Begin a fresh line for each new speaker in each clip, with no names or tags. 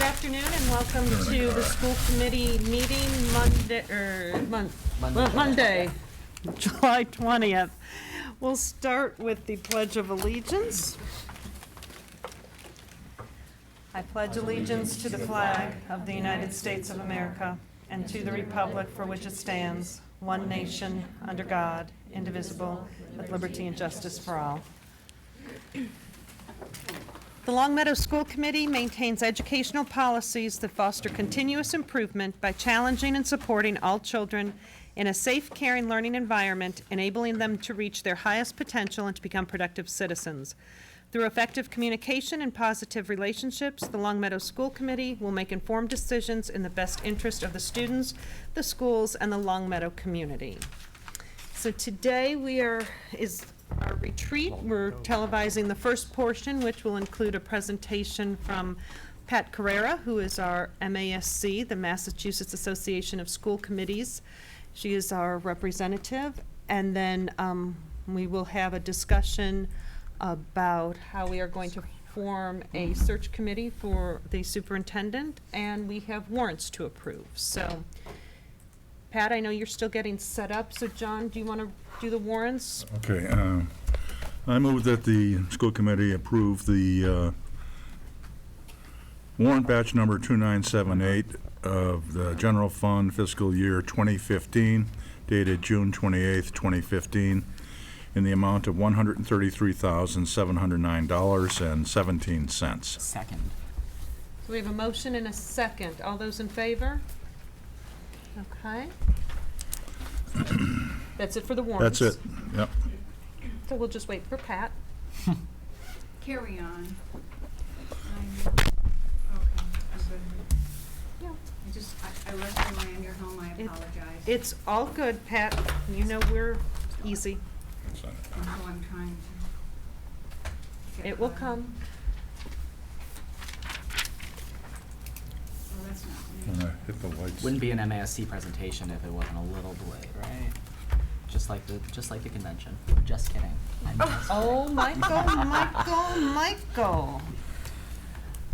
afternoon and welcome to the school committee meeting Monday, er, Mon- Mon- Monday, July 20th. We'll start with the Pledge of Allegiance. I pledge allegiance to the flag of the United States of America and to the republic for which it stands, one nation, under God, indivisible, with liberty and justice for all. The Long Meadow School Committee maintains educational policies that foster continuous improvement by challenging and supporting all children in a safe, caring, learning environment, enabling them to reach their highest potential and to become productive citizens. Through effective communication and positive relationships, the Long Meadow School Committee will make informed decisions in the best interest of the students, the schools, and the Long Meadow community. So today we are, is our retreat. We're televising the first portion, which will include a presentation from Pat Carrera, who is our MASC, the Massachusetts Association of School Committees. She is our representative. And then um, we will have a discussion about how we are going to form a search committee for the superintendent, and we have warrants to approve. So Pat, I know you're still getting set up, so John, do you want to do the warrants?
Okay, uh, I move that the school committee approve the uh, warrant batch number 2978 of the general fund fiscal year 2015 dated June 28th, 2015, in the amount of $133,709.17.
Second.
So we have a motion and a second. All those in favor? Okay. That's it for the warrants.
That's it, yep.
So we'll just wait for Pat.
Carry on. I'm- Okay, I'm good.
Yeah.
I just, I I rushed away on your home, I
It-
apologize.
It's all good, Pat. You know we're easy.
And so I'm trying to. get
It will
caught up.
come.
Well, that's not
When
me.
I Hit the lights.
Wouldn't be an MASC presentation if it wasn't a little delayed, right? Just like the, just like the convention. Just kidding. I'm just kidding.
Oh, Michael, Michael, Michael.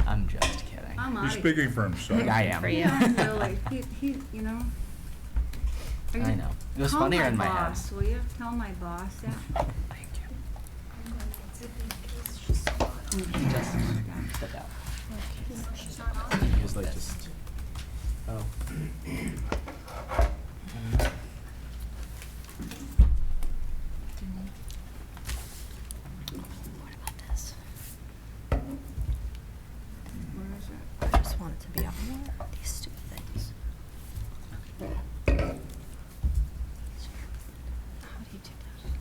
I'm just kidding.
I'm
He's
out of here.
speaking for himself.
I am.
Yeah, really, he, he, you know. Are
I
you-
know. It was funnier in my
Call my
head.
boss, will you? Tell my boss that.
Thank you. Step out. He was like just, oh.
What about this?
Where is it?
I just want it to be up more. These stupid things. How do you do that?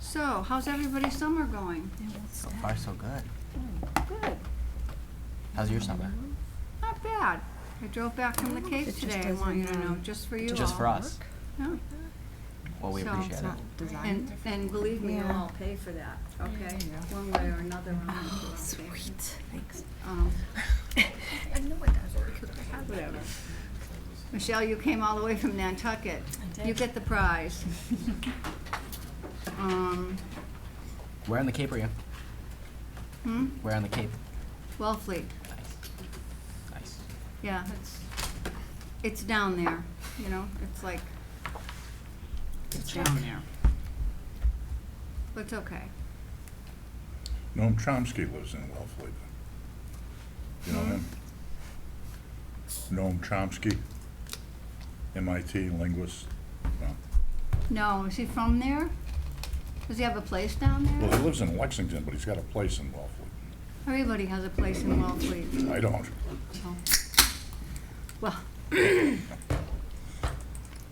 So, how's everybody's summer going?
It won't
So
snap.
far, so good.
Good,
How's your summer?
not bad. I drove back from the Cape
It just
today, I want you to
doesn't,
know,
um,
just for you all.
Just for us.
Yeah.
Well, we
So-
appreciate
It's
it.
not
And,
designed.
and believe me, you'll
Yeah.
all pay for that, okay?
Yeah.
One way or another, I'll make you all
Oh,
pay for it.
sweet. Thanks.
Um, ah,
I know I got it because I have it.
whatever. Michelle, you came all the way from Nantucket.
I did.
You get the prize. Um,
Where on the Cape are you?
hmm,
Where on the Cape?
Wellfleet,
Nice. Nice.
yeah, it's, it's down there, you know, it's like, it's down there. But it's okay.
Noam Chomsky lives in Wellfleet. You know him? Noam Chomsky, MIT linguist. No.
No, is he from there? Does he have a place down
Well, he
there?
lives in Lexington, but he's got a place in Wellfleet.
Everybody has a place in Wellfleet.
I don't.
Well,